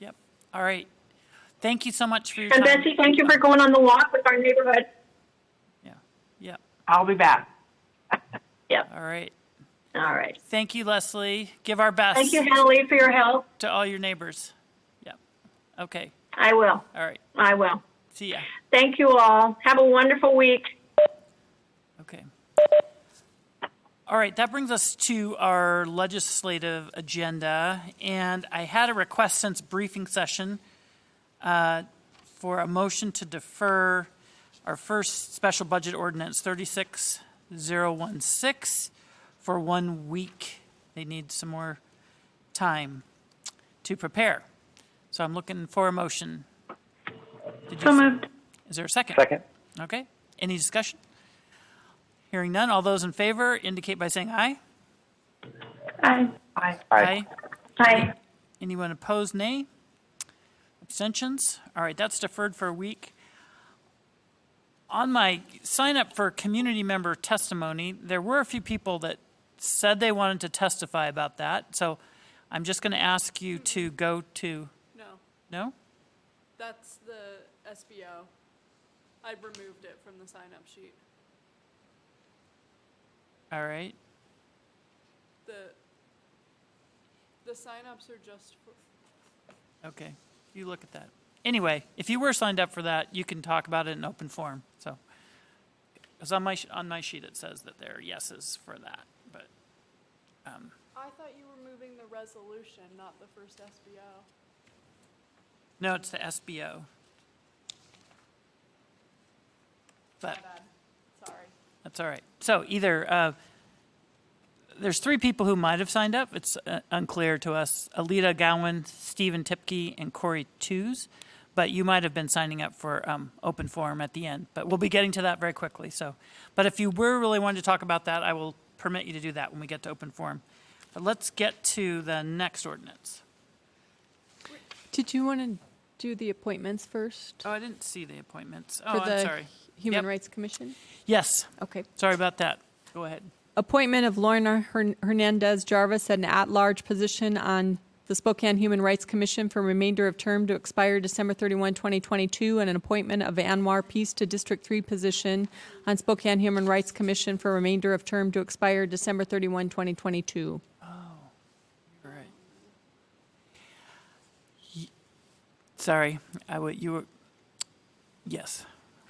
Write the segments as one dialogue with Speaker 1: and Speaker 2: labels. Speaker 1: Yep. All right. Thank you so much for your
Speaker 2: And
Speaker 1: time.
Speaker 2: Betsy, thank you for going on the walk with our neighborhood.
Speaker 1: Yeah. Yep.
Speaker 3: I'll be back.
Speaker 2: Yep,
Speaker 1: All right.
Speaker 2: all right.
Speaker 1: Thank you, Leslie. Give our best
Speaker 2: Thank you, Hallie, for your help.
Speaker 1: to all your neighbors. Yep. Okay.
Speaker 2: I will,
Speaker 1: All right.
Speaker 2: I will.
Speaker 1: See ya.
Speaker 2: Thank you all. Have a wonderful week.
Speaker 1: Okay. All right, that brings us to our legislative agenda, and I had a request since briefing session uh, for a motion to defer our first special budget ordinance 36016 for one week. They need some more time to prepare. So I'm looking for a motion. Did you
Speaker 2: So
Speaker 1: s-
Speaker 2: moved.
Speaker 1: Is there a second?
Speaker 4: Second.
Speaker 1: Okay, any discussion? Hearing none, all those in favor indicate by saying aye.
Speaker 2: Aye.
Speaker 3: Bye.
Speaker 4: Aye.
Speaker 2: Aye.
Speaker 1: Anyone opposed, nay? Abstentions? All right, that's deferred for a week. On my sign up for community member testimony, there were a few people that said they wanted to testify about that, so I'm just going to ask you to go to,
Speaker 5: No,
Speaker 1: no?
Speaker 5: that's the SBO. I removed it from the sign-up sheet.
Speaker 1: All right,
Speaker 5: The, the sign-ups are just for,
Speaker 1: okay, you look at that. Anyway, if you were signed up for that, you can talk about it in open forum, so. Because on my, sh- on my sheet, it says that there are yeses for that, but.
Speaker 5: I thought you were moving the resolution, not the first SBO.
Speaker 1: No, it's the SBO. But
Speaker 5: Sorry.
Speaker 1: that's all right. So either, uh, there's three people who might have signed up. It's uh, unclear to us. Alita Gowen, Stephen Tipke, and Corey Tews. But you might have been signing up for um, open forum at the end. But we'll be getting to that very quickly. So, but if you were really wanting to talk about that, I will permit you to do that when we get to open forum. But let's get to the next ordinance.
Speaker 6: Did you want to do the appointments first?
Speaker 1: Oh, I didn't see the appointments.
Speaker 6: for
Speaker 1: Oh, I'm
Speaker 6: the
Speaker 1: sorry.
Speaker 6: Human
Speaker 1: Yep.
Speaker 6: Rights Commission?
Speaker 1: Yes.
Speaker 6: Okay.
Speaker 1: Sorry about that. Go ahead.
Speaker 6: Appointment of Lorna Hern- Hernandez Jarvis at an at-large position on the Spokane Human Rights Commission for remainder of term to expire December 31, 2022, and an appointment of Anwar Peace to District 3 position on Spokane Human Rights Commission for remainder of term to expire December 31, 2022.
Speaker 1: All right. Ye- Sorry, I would, you were, yes.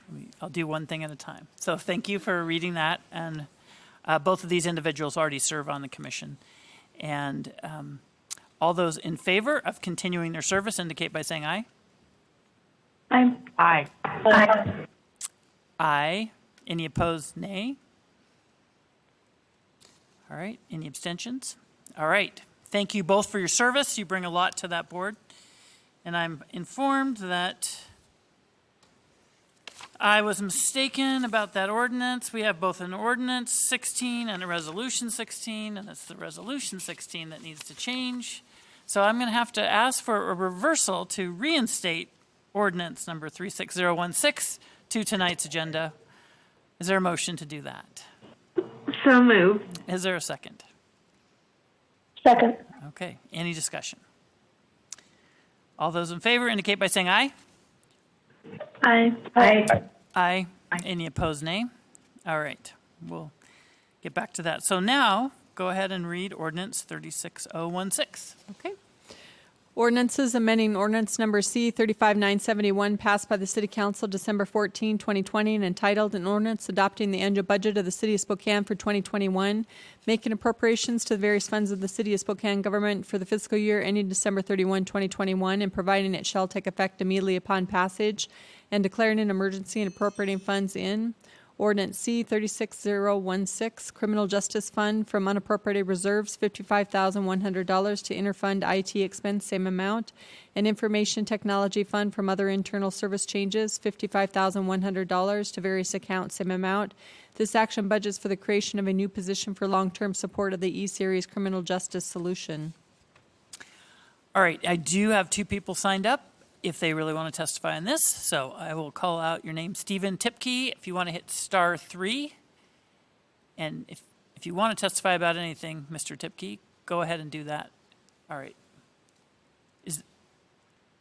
Speaker 1: Let me- I'll do one thing at a time. So thank you for reading that. And uh, both of these individuals already serve on the commission. And um, all those in favor of continuing their service indicate by saying aye.
Speaker 2: Aye.
Speaker 3: Aye.
Speaker 2: Aye.
Speaker 1: Aye. Any opposed, nay? All right, any abstentions? All right, thank you both for your service, you bring a lot to that board. And I'm informed that I was mistaken about that ordinance. We have both an ordinance 16 and a resolution 16, and it's the resolution 16 that needs to change. So I'm going to have to ask for a reversal to reinstate ordinance number 36016 to tonight's agenda. Is there a motion to do that?
Speaker 2: So moved.
Speaker 1: Is there a second?
Speaker 2: Second.
Speaker 1: Okay, any discussion? All those in favor indicate by saying aye.
Speaker 2: Aye. Aye.
Speaker 1: Aye. Any opposed, nay? All right, we'll get back to that. So now, go ahead and read ordinance 36016.
Speaker 6: Okay. Ordinances amending ordinance number C 35971 passed by the City Council December 14, 2020, and entitled an ordinance adopting the annual budget of the City of Spokane for 2021, making appropriations to the various funds of the City of Spokane government for the fiscal year ending December 31, 2021, and providing it shall take effect immediately upon passage, and declaring an emergency and appropriating funds in. Ordinance C 36016, Criminal Justice Fund from unappropriated reserves, $55,100 to interfund IT expense, same amount, and Information Technology Fund from other internal service changes, $55,100 to various accounts, same amount. This action budgets for the creation of a new position for long-term support of the E-Series Criminal Justice Solution.
Speaker 1: All right, I do have two people signed up if they really want to testify on this, so I will call out your name, Stephen Tipke, if you want to hit star three. And if, if you want to testify about anything, Mr. Tipke, go ahead and do that. All right,